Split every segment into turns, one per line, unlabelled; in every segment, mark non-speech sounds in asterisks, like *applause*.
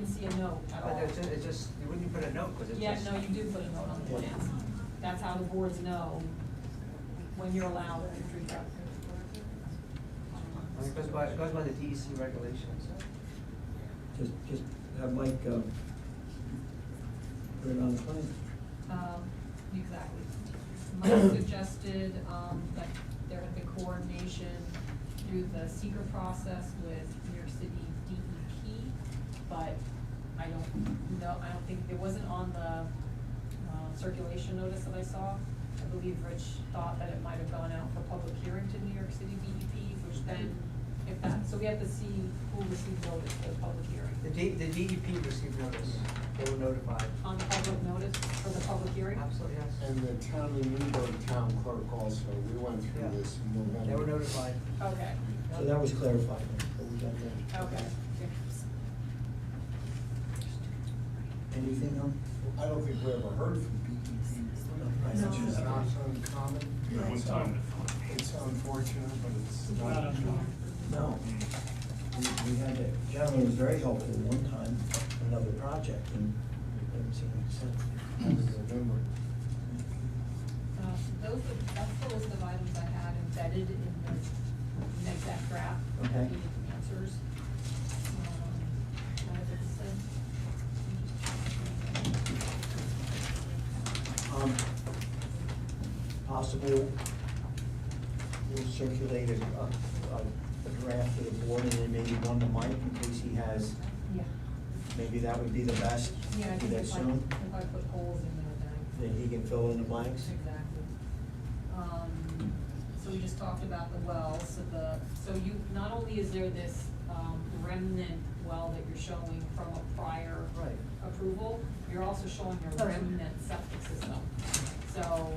no at all.
But it's, it's just, you wouldn't put a note, because it's
Yeah,
just.
no, you do put a note on the plans. That's how the boards know when you're allowed to tree truck.
I mean, It goes by, it goes by the DEC regulations.
Just, just have Mike, um, put it on the plan.
Um, exactly. Mike suggested, um, that there had been coordination through the seeker process with New York City DEP, but I don't know, I don't think, it wasn't on the, uh, circulation notice that I saw. I believe Rich thought that it might have gone out for public hearing to New York City DEP, which then, if that, so we have to see who received notice for the public hearing.
The D, the DEP received notice, they were notified.
On public notice for the public hearing?
Absolutely, yes.
And the town of Newburgh Town Clerk also, we went
Yeah.
through this in November.
They were notified.
Okay,
So that was clarified, what we got there.
okay.
Anything else?
I don't think we ever heard from BEP,
No.
which is not uncommon. uh,
Yeah, one time.
It's unfortunate, but it's
It's
not
not
uncommon.
No. We, we had, a gentleman was very helpful one time, another project, and it didn't seem to make
I
sense.
remember.
Um, Those are, that's the list of items I had embedded in the next that draft.
Okay.
We need the answers. Um, what did it say?
Um, Possible, we'll circulate a, a a draft to the board, and then maybe one to Mike, in case he has,
Yeah,
maybe that would be the best.
yeah, I
Do
think
that
if I,
soon.
if I put holes in there, then.
Then he can fill in the blanks.
Exactly. Um, so we just talked about the well, so the, so you, not only is there this, um, remnant well that you're showing from a prior
Right.
approval, you're also showing your remnant septic system. So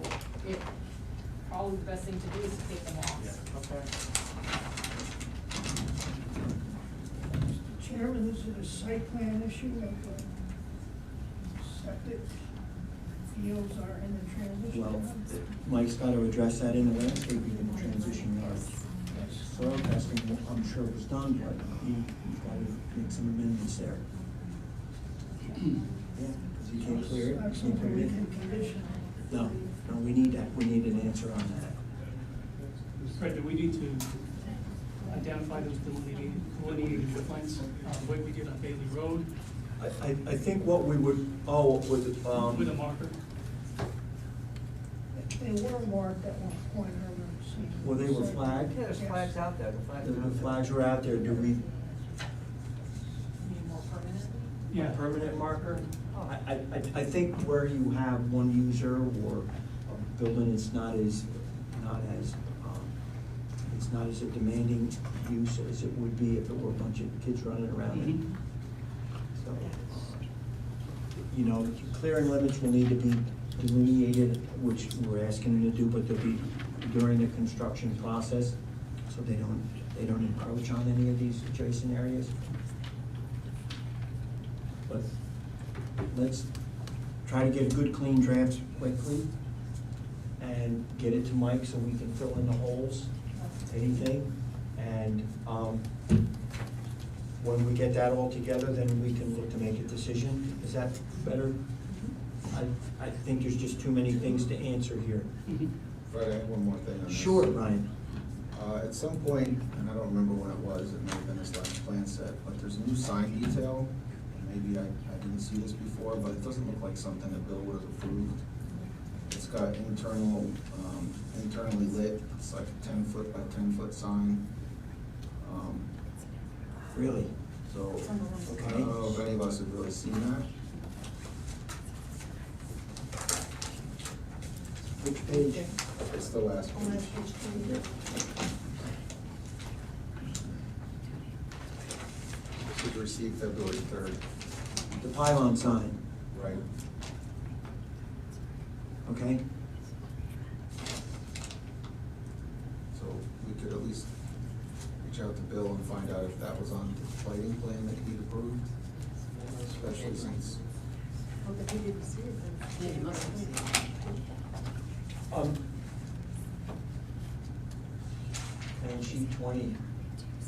it, probably the best thing to do is to take them off.
Okay.
Mr. Chairman, this is a site plan issue of uh, septic fields are in the transition.
Well,
zone.
Mike's got to address that in the landscaping and the transition yard. Soil testing, I'm sure was done, but he- he's got to make some amendments there.
*clears throat*
Yeah, because he can't clear it,
That's
he can't put
something
it
we can
in.
condition.
No, no, we need that, we need an answer on that.
Fred, do we need to identify those delineating, delineating wetlands, uh, like we did on Bailey Road
I, I, I think what we would, oh, with, um.
with a marker?
They were marked at one point, I remember seeing.
Well, they were flagged?
Yeah, there's
Yes.
flags out there, the flags.
The,
are out
the
there.
flags are out there, do we,
You mean more permanently?
Yeah.
permanent marker? I, I, I- I think where you have one user or a building, it's not as, not as, um, it's not as a demanding use as it would be if it were a bunch of kids running around.
Mhm.
So, uh, you know, clearing limits will need to be delineated, which we're asking them to do, but they'll be during the construction process, so they don't, they don't encroach on any of these adjacent areas. But let's try to get a good clean draft quickly and get it to Mike so we can fill in the holes, anything. And, um, when we get that all together, then we can look to make a decision. Is that better? I, I think there's just too many things to answer here.
Mm-hmm.
Fred, I have one more thing on this.
Sure, Ryan.
Uh, at some point, and I don't remember when it was, it may have been this last plan set, but there's a new sign detail. Maybe I, I didn't see this before, but it doesn't look like something that Bill would have approved. It's got internal, um, internally lit, it's like a ten foot by ten foot sign. Um,
Really?
so, I
Okay.
don't know if any of us have really seen that.
Which page?
It's the last
On that
page.
page two.
This was received February third,
The pylon sign,
right?
okay?
So we could at least reach out to Bill and find out if that was on the lighting plan that he'd approved, especially since.
Well, but he didn't see it then.
Yeah, he must have seen it.
Um, And sheet twenty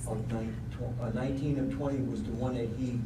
of nine, tw- uh, nineteen of twenty was the one that he